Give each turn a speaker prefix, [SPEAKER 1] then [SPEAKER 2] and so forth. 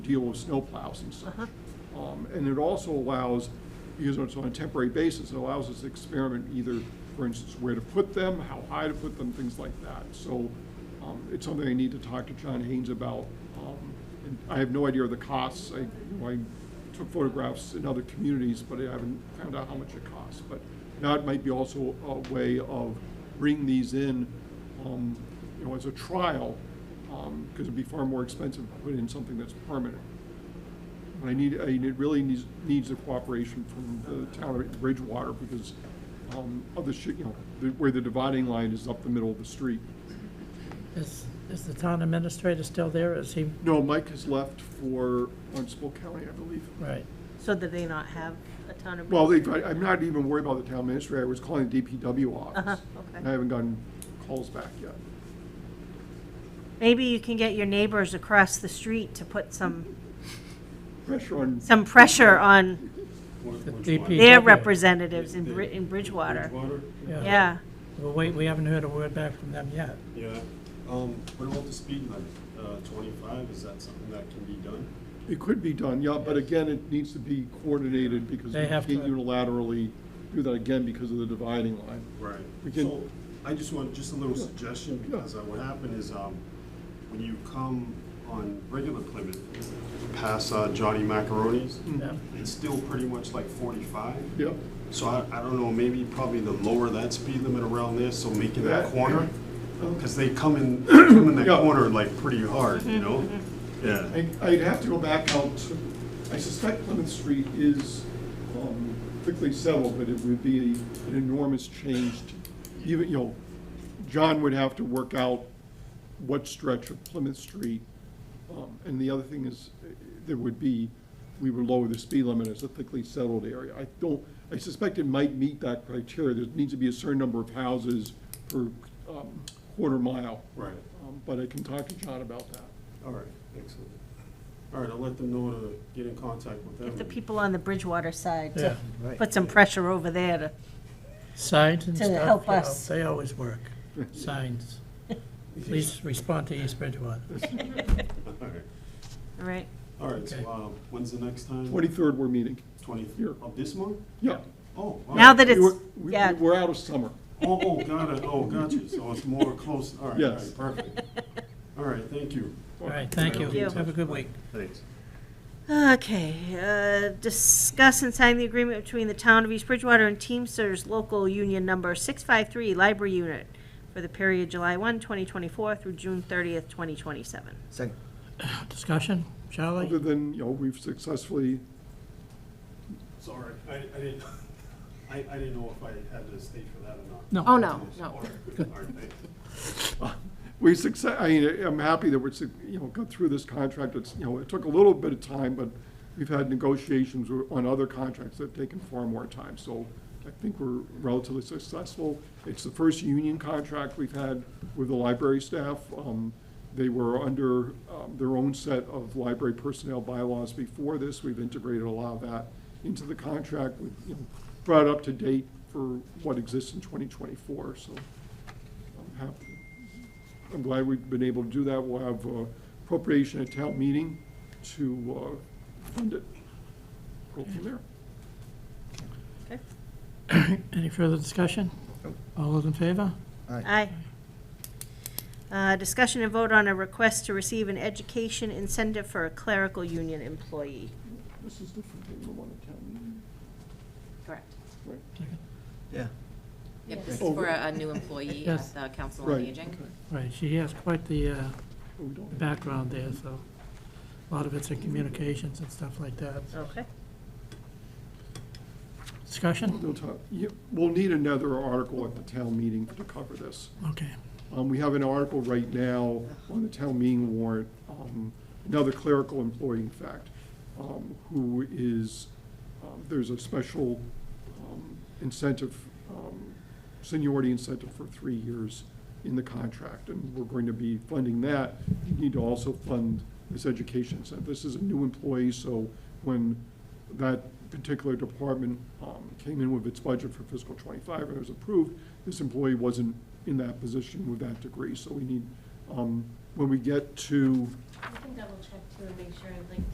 [SPEAKER 1] deal with snowplows and such. Um, And it also allows, because it's on a temporary basis, it allows us to experiment either, for instance, where to put them, how high to put them, things like that. So um, it's something I need to talk to John Haynes about. Um, and I have no idea of the costs. I, you know, I took photographs in other communities, but I haven't found out how much it costs. But that might be also a way of bringing these in, um, you know, as a trial, because it'd be far more expensive to put in something that's permanent. And I need, I, it really needs, needs the cooperation from the town of Bridgewater, because, um, of the, shi- you know, the- where the dividing line is up the middle of the street.
[SPEAKER 2] Is, is the town administrator still there? Is he,
[SPEAKER 1] No, Mike has left for Barnstable County, I believe.
[SPEAKER 2] right,
[SPEAKER 3] So did they not have a ton of?
[SPEAKER 1] Well, they, I- I'm not even worried about the town administrator, I was calling the DPW
[SPEAKER 3] Uh-huh,
[SPEAKER 1] office.
[SPEAKER 3] okay.
[SPEAKER 1] And I haven't gotten calls back yet.
[SPEAKER 3] Maybe you can get your neighbors across the street to put some,
[SPEAKER 1] Pressure on.
[SPEAKER 3] some pressure on
[SPEAKER 2] The
[SPEAKER 4] Which
[SPEAKER 2] DP.
[SPEAKER 4] one?
[SPEAKER 2] Yeah.
[SPEAKER 3] their representatives in Bri- in Bridgewater.
[SPEAKER 4] Bridgewater?
[SPEAKER 2] yeah.
[SPEAKER 3] Yeah,
[SPEAKER 2] Well, wait, we haven't heard a word back from them yet.
[SPEAKER 4] Yeah. Um, what about the speed limit, uh, twenty-five, is that something that can be done?
[SPEAKER 1] It could be done, yeah, but again, it needs to be coordinated, because
[SPEAKER 2] They
[SPEAKER 1] we
[SPEAKER 2] have
[SPEAKER 1] can't
[SPEAKER 2] to-
[SPEAKER 1] unilaterally do that again because of the dividing line.
[SPEAKER 4] Right.
[SPEAKER 1] We can-
[SPEAKER 4] So, I just want, just a little suggestion, because uh, what happened is, um, when you come on regular Plymouth, past uh, Johnny Macaroni's,
[SPEAKER 1] Mm.
[SPEAKER 2] Yeah.
[SPEAKER 4] it's still pretty much like forty-five.
[SPEAKER 1] Yep,
[SPEAKER 4] So I, I don't know, maybe probably the lower that speed limit around there, so making that
[SPEAKER 1] That-
[SPEAKER 4] corner, because they come in, come in that
[SPEAKER 1] Yeah.
[SPEAKER 4] corner like pretty hard, you know?
[SPEAKER 3] Mm-hmm,
[SPEAKER 4] Yeah,
[SPEAKER 1] I, I'd have to go back out, to- I suspect Plymouth Street is, um, quickly settled, but it would be an enormous change. to- Even, you know, John would have to work out what stretch of Plymouth Street. Um, and the other thing is, eh, there would be, we would lower the speed limit as a thickly settled area. I don't, I suspect it might meet that criteria. There needs to be a certain number of houses per, um, quarter mile.
[SPEAKER 4] right,
[SPEAKER 1] Um, But I can talk to John about that.
[SPEAKER 4] all right, excellent. All right, I'll let them know to get in contact with them.
[SPEAKER 3] get the people on the Bridgewater side
[SPEAKER 2] Yeah,
[SPEAKER 3] to put some pressure over there to,
[SPEAKER 2] signs and
[SPEAKER 3] To
[SPEAKER 2] stuff.
[SPEAKER 3] help
[SPEAKER 2] you know,
[SPEAKER 3] us.
[SPEAKER 2] They always work, signs. Please respond to East Bridgewater.
[SPEAKER 4] All right,
[SPEAKER 3] all right?
[SPEAKER 4] all right, so,
[SPEAKER 2] Okay.
[SPEAKER 4] uh, when's the next time?
[SPEAKER 1] Twenty-third, we're meeting. Here.
[SPEAKER 4] Twenty, of this month?
[SPEAKER 1] Yeah.
[SPEAKER 4] Oh. all
[SPEAKER 3] Now
[SPEAKER 4] right.
[SPEAKER 3] that
[SPEAKER 1] We
[SPEAKER 3] it's,
[SPEAKER 1] were- we-
[SPEAKER 3] yeah,
[SPEAKER 1] We're out of summer.
[SPEAKER 4] Oh, oh, got it, oh, got you, so it's more close, all right, all
[SPEAKER 1] Yes.
[SPEAKER 4] right, perfect. All right, thank you.
[SPEAKER 2] All right, thank you.
[SPEAKER 4] Thank you.
[SPEAKER 2] Have a good week.
[SPEAKER 4] Thanks.
[SPEAKER 3] Okay, uh, discuss and sign the agreement between the town of East Bridgewater and Teamsters Local Union Number 653 Library Unit for the period July 1, 2024 through June 30th, 2027.
[SPEAKER 5] Second.
[SPEAKER 2] Discussion,
[SPEAKER 1] Other
[SPEAKER 2] Charlie?
[SPEAKER 1] than, you know, we've successfully,
[SPEAKER 4] Sorry, I, I didn't, I, I didn't know if I had to stay for that or not.
[SPEAKER 2] No.
[SPEAKER 6] Oh, no, no.
[SPEAKER 4] All right, all right, thank you.
[SPEAKER 1] we success, I mean, I'm happy that we're, suc- you know, got through this contract. It's, you know, it took a little bit of time, but we've had negotiations on other contracts that have taken far more time. So I think we're relatively successful. It's the first union contract we've had with the library staff. Um, They were under um, their own set of library personnel bylaws before this. We've integrated a lot of that into the contract with, you know, brought up to date for what exists in 2024. So I'm happy, I'm glad we've been able to do that. We'll have uh, appropriation at town meeting to uh, fund it. Go from there.
[SPEAKER 2] Any further discussion? All those in favor?
[SPEAKER 3] Aye. Uh, Discussion and vote on a request to receive an education incentive for a clerical union employee.
[SPEAKER 1] This is different than the one at town meeting.
[SPEAKER 3] Correct.
[SPEAKER 1] Right.
[SPEAKER 5] Yeah.
[SPEAKER 6] Yep, this is
[SPEAKER 1] Oh,
[SPEAKER 6] for a a new employee
[SPEAKER 2] Yes.
[SPEAKER 6] at the Council on
[SPEAKER 1] Right,
[SPEAKER 6] Aging.
[SPEAKER 1] okay.
[SPEAKER 2] Right, she has quite the uh,
[SPEAKER 1] Oh, we don't-
[SPEAKER 2] background there, so a lot of it's in communications and stuff like that.
[SPEAKER 3] Okay.
[SPEAKER 2] Discussion?
[SPEAKER 1] no time. Yeah, We'll need another article at the town meeting to cover this.
[SPEAKER 2] Okay.
[SPEAKER 1] Um, We have an article right now on the town meeting warrant, um, another clerical employee, in fact, um, who is, um, there's a special um, incentive, um, seniority incentive for three years in the contract, and we're going to be funding that. You need to also fund this education incentive. This is a new employee, so when that particular department um, came in with its budget for fiscal '25 and it was approved, this employee wasn't in that position with that degree. So we need, um, when we get to
[SPEAKER 7] I can double check too and make sure, like,